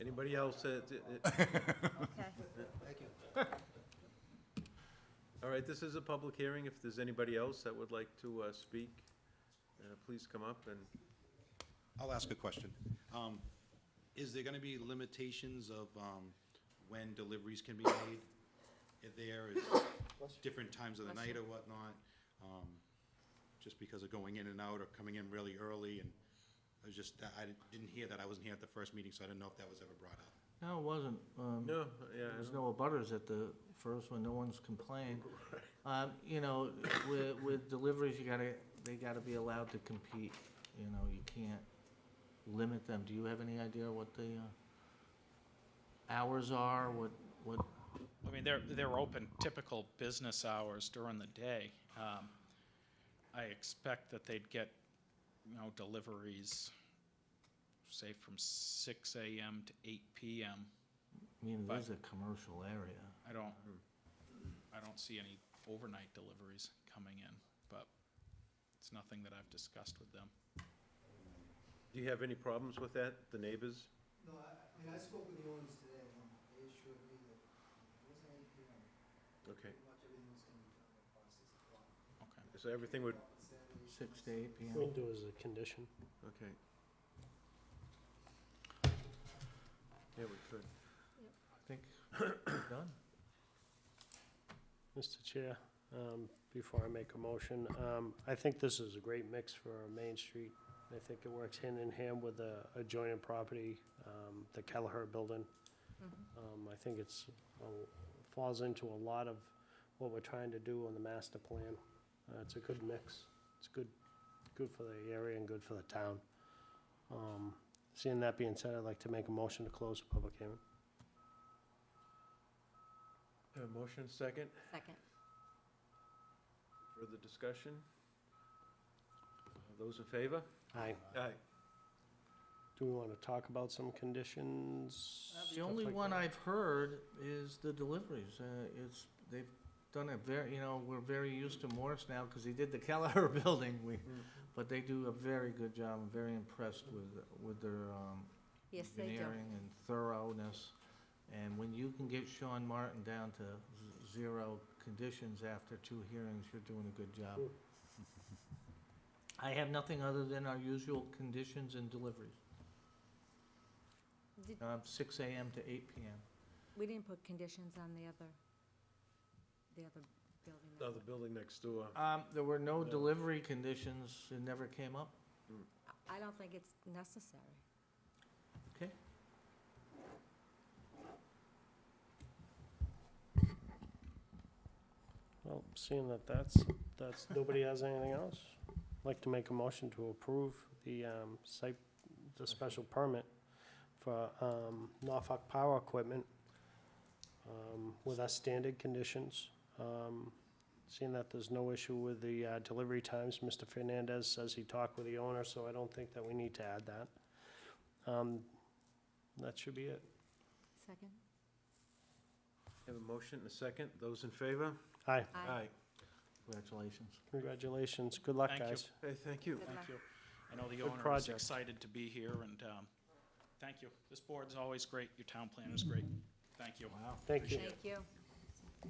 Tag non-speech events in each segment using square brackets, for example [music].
anybody else that, that- that- Okay. all right, this is a public hearing. If there's anybody else that would like to uh, speak, uh, please come up and, I'll ask a question. Um, Is there gonna be limitations of um, when deliveries can be made? If there is different times of the night or whatnot, um, just because of going in and out or coming in really early, and I was just, I didn't hear that, I wasn't here at the first meeting, so I didn't know if that was ever brought up. No, it wasn't. Um, no, yeah. I There's don't- no abutters at the first one, no one's [laughs] complained. Um, you know, with, with deliveries, you gotta, they gotta be allowed to compete, you know, you can't limit them. Do you have any idea what the, uh, hours are, what, what, I mean, they're, they're open typical business hours during the day. Um, I expect that they'd get, you know, deliveries, say from six AM to eight PM. I mean, it Fine. is a commercial area. I don't, I don't see any overnight deliveries coming in, but it's nothing that I've discussed with them. Do you have any problems with that, the neighbors? No, I, I mean, I spoke with the owners today, and they assured me that, it was any, you know, Okay, pretty much everything was gonna be done by six o'clock. Okay. so everything would, Saturday, Six to eight P M. We'll do as a condition. okay. Yeah, we could. I think [clears throat] we're done. Mr. Chair, um, before I make a motion, um, I think this is a great mix for our Main Street. I think it works hand in hand with the adjoining property, um, the Kelleher Building. Um, I think it's, uh, falls into a lot of what we're trying to do on the master plan. Uh, It's a good mix. It's good, good for the area and good for the town. Um, Seeing that being said, I'd like to make a motion to close the public hearing. Uh, Motion second, Second. further discussion? Those in favor? Aye. Aye. Do we want to talk about some conditions? Uh, The stuff only like one that? I've heard is the deliveries. Uh, It's, they've done a very, you know, we're very used to Morris now because he did the [laughs] Kelleher building. We, But they do a very good job. I'm very impressed with, with their um, Yes, they do. engineering and thoroughness. And when you can get Sean Martin down to z- zero conditions after two hearings, you're doing a good job. Mm. I have nothing other than our usual conditions and deliveries. Did- Um, Six AM to eight PM. We didn't put conditions on the other, the other building. Oh, the building next door. Um, there were no Yeah. delivery conditions, it never came up, I don't think it's necessary. okay? Well, seeing that that's, that's, nobody has anything else, I'd like to make a motion to approve the, um, site, the special permit for, um, Norfolk Power Equipment, um, with our standard conditions. Um, seeing that there's no issue with the, uh, delivery times, Mr. Fernandez says he talked with the owner, so I don't think that we need to add that. Um, that should be it. Second? Have a motion and a second, those in favor? Aye, Congratulations. congratulations, good luck, Thank you. guys. Hey, thank you. Good luck. Thank you. I know the Good owner is project. excited to be here, and um, thank you. This board's always great, your town plan is great. Thank you. Wow. Thank you, Thank you.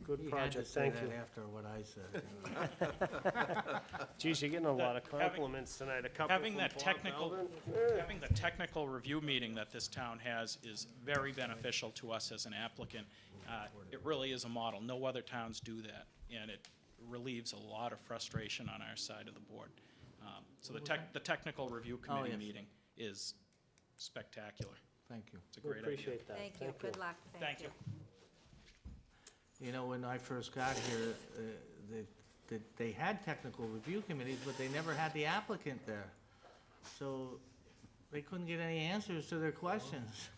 good project, thank you. He had to say that after what I said. you know. Geez, you're getting a lot of having- compliments tonight, a couple having from that Bob technical- Belvin. Having the technical review meeting that this town has is very beneficial to us as an applicant. Uh, It really is a model. No other towns do that, and it relieves a lot of frustration on our side of the board. Um, So the tech, the technical review committee yes. meeting is spectacular. Thank you. It's a We great idea. appreciate that, Thank you. Good luck. Thank you. You know, when I first got here, uh, they, they- they had technical review committees, but they never had the applicant there. So they couldn't get any answers to their questions.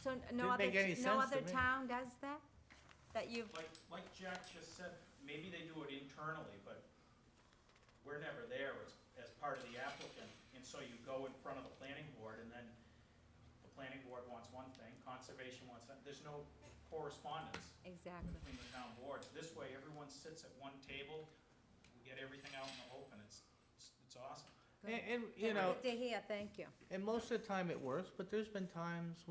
So n- no Didn't other, make any t- no sense to other me. town does that? That you've, Like, like Jack just said, maybe they do it internally, but we're never there as, as part of the applicant. And so you go in front of the planning board and then the planning board wants one thing, conservation wants that. There's no correspondence exactly. between the town boards. This way, everyone sits at one table, we get everything out in the open. It's, it's- it's awesome. good. And, and, Yeah, you know, Good to hear, thank you. and most of the time it works, but there's been times